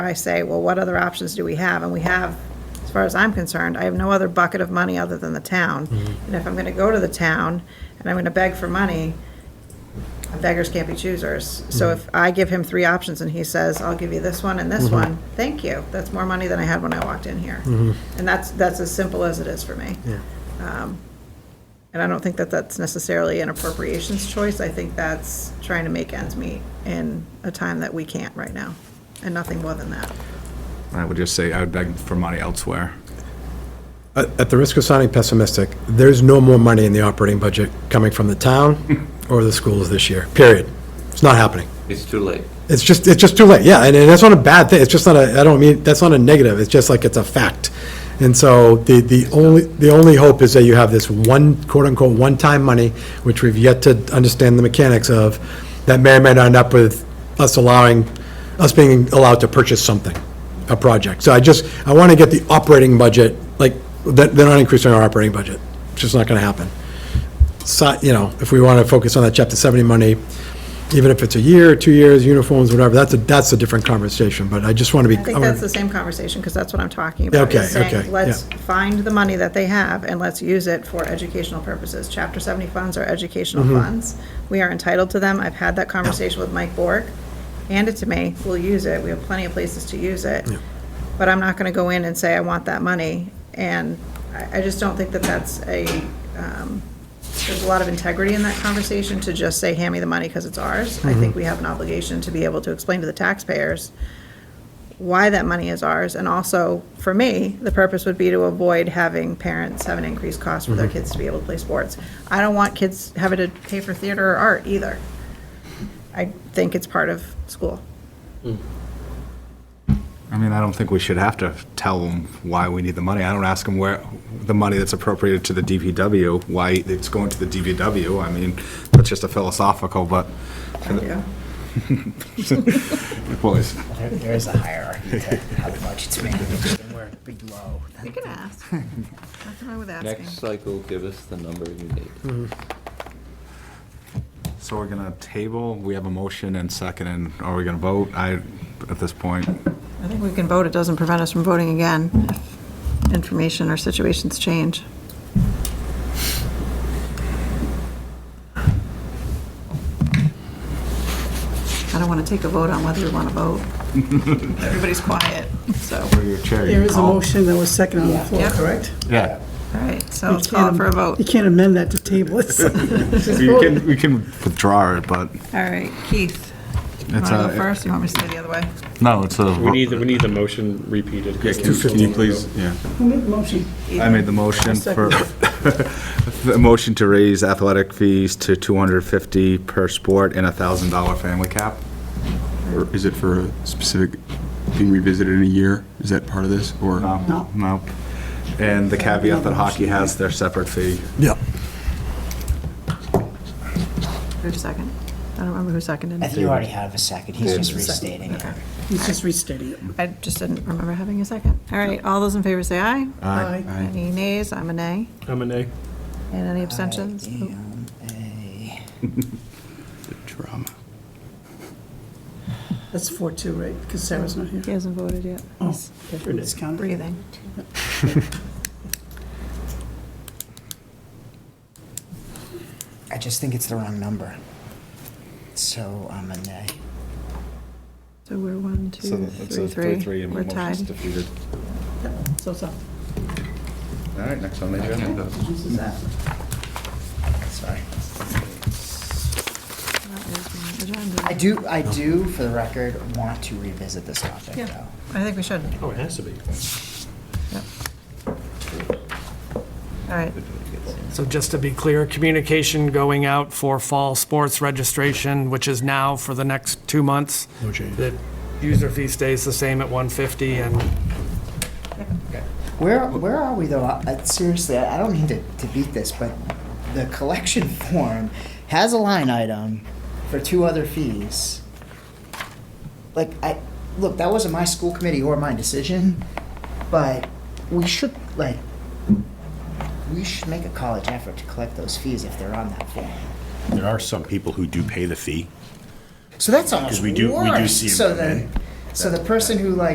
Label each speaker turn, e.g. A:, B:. A: I say, well, what other options do we have? And we have, as far as I'm concerned, I have no other bucket of money other than the town. And if I'm going to go to the town and I'm going to beg for money, beggars can't be choosers. So if I give him three options and he says, I'll give you this one and this one, thank you. That's more money than I had when I walked in here. And that's, that's as simple as it is for me. Um, And I don't think that that's necessarily an appropriations choice. I think that's trying to make ends meet in a time that we can't right now, and nothing more than that.
B: I would just say I would beg for money elsewhere.
C: At at the risk of sounding pessimistic, there's no more money in the operating budget coming from the town or the schools this year, period. It's not happening.
D: It's too late.
C: It's just, it's just too late, yeah, and and that's not a bad thing, it's just not a, I don't mean, that's not a negative, it's just like, it's a fact. And so, the, the only, the only hope is that you have this one, quote-unquote, one-time money, which we've yet to understand the mechanics of, that may or may not end up with us allowing, us being allowed to purchase something, a project. So I just, I want to get the operating budget, like, they're they're not increasing our operating budget, it's just not going to happen si- you know, if we want to focus on that chapter 70 money, even if it's a year, two years, uniforms, whatever, that's a, that's a different conversation, but I just want to be.
A: I think that's the same conversation, because that's what I'm talking about.
C: Okay,
A: is saying,
C: okay,
A: Let's
C: yeah.
A: find the money that they have, and let's use it for educational purposes. Chapter 70 funds are educational
C: Mm-hmm.
A: funds. We are entitled to them. I've had that conversation with Mike Bork. Hand it to me, we'll use it. We have plenty of places to use it. But I'm not going to go in and say, I want that money, and I, I just don't think that that's a, um, there's a lot of integrity in that conversation to just say, hand me the money because it's ours.
C: Mm-hmm.
A: I think we have an obligation to be able to explain to the taxpayers why that money is ours, and also, for me, the purpose would be to avoid having parents have an increased cost for their kids to be able to play sports. I don't want kids having to pay for theater or art either. I think it's part of school.
B: I mean, I don't think we should have to tell them why we need the money. I don't ask them where, the money that's appropriated to the DPW, why it's going to the DPW. I mean, that's just a philosophical, but,
E: Oh,
A: Yeah.
B: well, it's-
F: There- There is a hierarchy to how the budget's managed, and we're below.
A: You can ask. Nothing wrong with asking.
D: Next cycle, give us the number you need.
B: so we're gonna table, we have a motion and second, and are we gonna vote? I, at this point,
A: I think we can vote, it doesn't prevent us from voting again if information or situations change. I don't want to take a vote on whether we want to vote. Everybody's quiet, so,
B: where your chair, you
E: There
B: can
E: is a
B: call.
E: motion that was second on the floor,
A: Yep.
E: correct?
B: Yeah,
A: all right, so let's call for a vote.
E: You can't amend that to table it. so-
B: we can, we can withdraw it, but
A: All right, Keith, you want
B: it's
A: to
F: uh,
A: go
B: a,
A: first, or you want me to stay the other way?
B: no, it's a.
G: We need, the- we need the motion repeated.
B: Yeah, Can can you please, yeah.
E: Who made the motion?
B: I made the motion for, the motion to raise athletic fees to 250 per sport and a $1,000 family cap.
H: Or is it for a specific being revisited in a year? Is that part of this, or?
B: No. No. And the caveat that hockey has their separate fee.
C: Yeah.
A: Who's second? I don't remember who seconded.
F: I think you already have a second, he's just restating it.
E: He's just restating it.
A: I just didn't remember having a second. All right, all those in favor say aye.
E: Aye.
A: Any nays? I'm a nay.
G: I'm a nay.
A: And any abstentions?
F: Damn, eh.
H: Drama.
E: That's four two, right? Because Sarah's not here.
A: He hasn't voted yet. He's
E: It's counted.
A: breathing.
F: I just think it's the wrong number. So I'm a nay.
A: So we're one,
B: So
A: two,
B: that's
A: three,
B: a
A: three.
B: and
A: We're tied.
B: motion's defeated.
E: So, so,
B: All right, next on the agenda.
E: this is that.
F: Sorry.
A: That is my agenda.
F: I do, I do, for the record, want to revisit this topic,
A: Yeah.
F: though.
A: I think we should.
G: Oh, it has to be.
A: All right.
I: So just to be clear, communication going out for fall sports registration, which is now for the next two months.
C: No change.
I: The user fee stays the same at 150 and
F: Where, where are we though? Uh, Seriously, I I don't mean to, to beat this, but the collection form has a line item for two other fees. Like, I, look, that wasn't my school committee or my decision, but we should, like, we should make a college effort to collect those fees if they're on that form.
J: There are some people who do pay the fee.
F: So that's almost
J: we do- we do
F: worse.
J: see 'em
F: So
J: come
F: then,
J: in.
F: so the person who like